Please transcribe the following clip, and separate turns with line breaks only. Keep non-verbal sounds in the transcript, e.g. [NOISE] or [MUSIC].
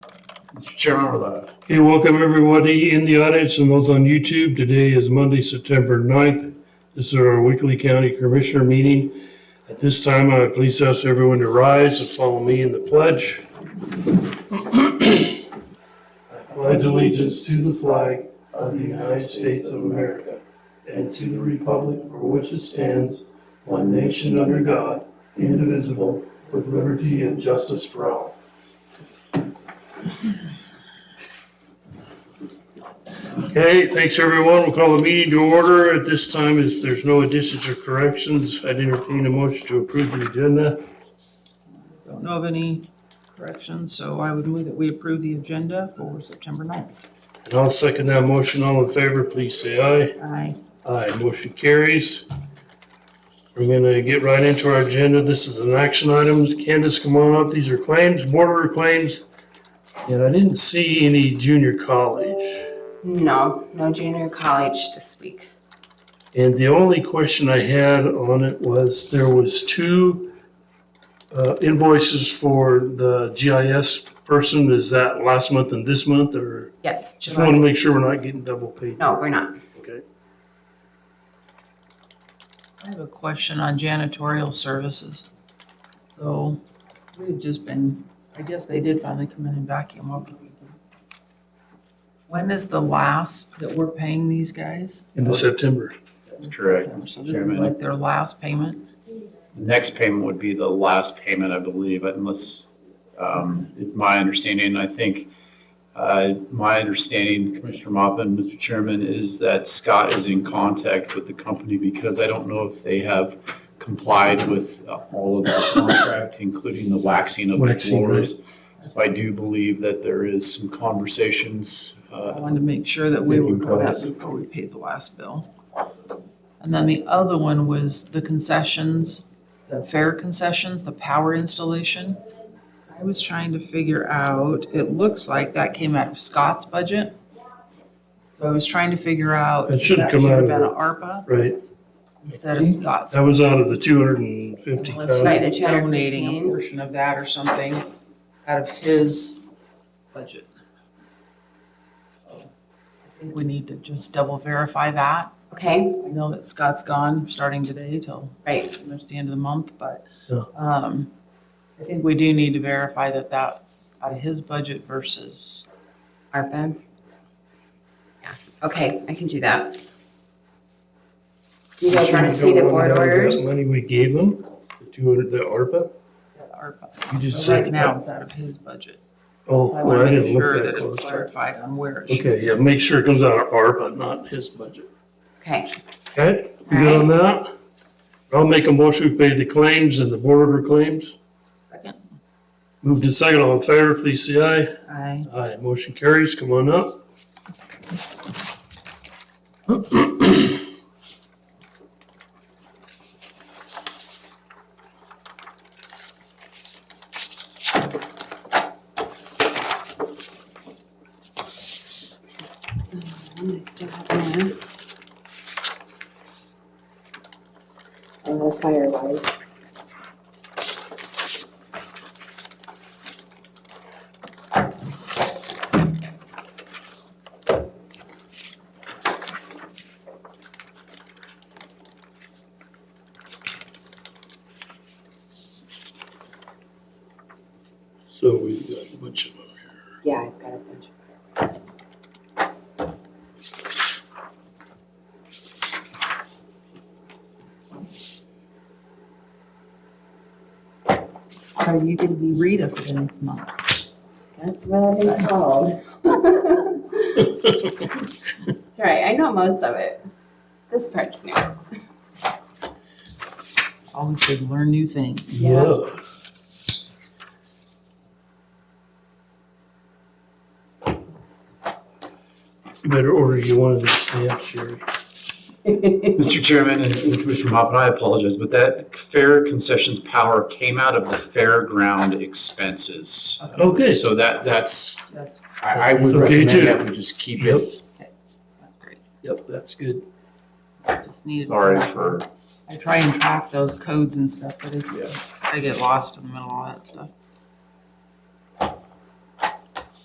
Mr. Chairman, with a
Okay, welcome everybody in the audience and those on YouTube. Today is Monday, September 9th. This is our weekly county commissioner meeting. At this time, I would please ask everyone to rise and follow me in the pledge. I pledge allegiance to the flag of the United States of America and to the republic for which it stands, one nation under God, indivisible, with liberty and justice for all. Okay, thanks everyone. We'll call the meeting to order. At this time, if there's no additions or corrections, I'd entertain a motion to approve the agenda.
Don't know of any corrections, so I would move that we approve the agenda for September 9th.
And I'll second that motion. All in favor, please say aye.
Aye.
Aye, motion carries. We're gonna get right into our agenda. This is an action item. Candace, come on up. These are claims, border claims. And I didn't see any junior college.
No, no junior college this week.
And the only question I had on it was, there was two uh, invoices for the GIS person. Is that last month and this month, or?
Yes,
Just want to
July.
make sure we're not getting double paid.
No, we're not.
Okay.
I have a question on janitorial services. So we've just been, I guess they did finally come in and vacuum over the weekend. When is the last that we're paying these guys?
Into September.
That's correct.
So
Mr.
this is
Chairman,
like their last payment?
the next payment would be the last payment, I believe, unless, um, it's my understanding, I think, uh, my understanding, Commissioner Mopin, Mr. Chairman, is that Scott is in contact with the company because I don't know if they have complied with uh, all of the contract, including the waxing of the
Waxing, right.
floors. So I do believe that there is some conversations,
I
uh,
wanted to make sure that we were
Taking
caught
place.
up before we paid the last bill. And then the other one was the concessions, the fair concessions, the power installation. I was trying to figure out, it looks like that came out of Scott's budget. So I was trying to figure out.
It
if
should
that
come out
have
of
Been
the-
an ARPA
Right,
instead of Scott's.
that was out of the two hundred and fifty
Unless
thousand.
Right, the
he's donating a
215.
portion of that or something out of his budget. So I think we need to just double verify that.
Okay,
I know that Scott's gone, starting today till
right.
pretty much the end of the month, but
Yeah.
um, I think we do need to verify that that's out of his budget versus,
ARPA. Yeah, okay, I can do that. You guys want to see the board orders?
Money we gave them, the two hundred, the ARPA,
our
you just said.
right now, it's out of his budget.
Oh,
I
well,
want
I
to
didn't
make sure
look
that
that
it's
close.
clarified on where it should.
Okay, yeah, make sure it comes out of ARPA, not his budget.
Okay,
Okay, you good on that? I'll make a motion to pay the claims and the board order claims.
Second.
Moved to second, all in favor, please say aye.
I,
Aye, motion carries, come on up.
so I still have mine. I love Firewise.
So we've got a bunch of them here.
Yeah, I've got a bunch of Fireways.
are you going to be Rita for the next month?
That's what I've been called. [LAUGHS] It's all right, I know most of it. This part's new.
Always good to learn new things.
Yeah.
You Better order you one of these stamps, Sherry.
Mr. Chairman and and Commissioner Mopin, I apologize, but that fair concessions power came out of the fairground expenses.
Okay,
So that, that's,
That's, that's
I, I would
Okay, too.
recommend that we just keep it.
great.
yep, that's good.
Just needed.
Sorry for,
I try and track those codes and stuff, but it's, I get lost in the middle of all that stuff.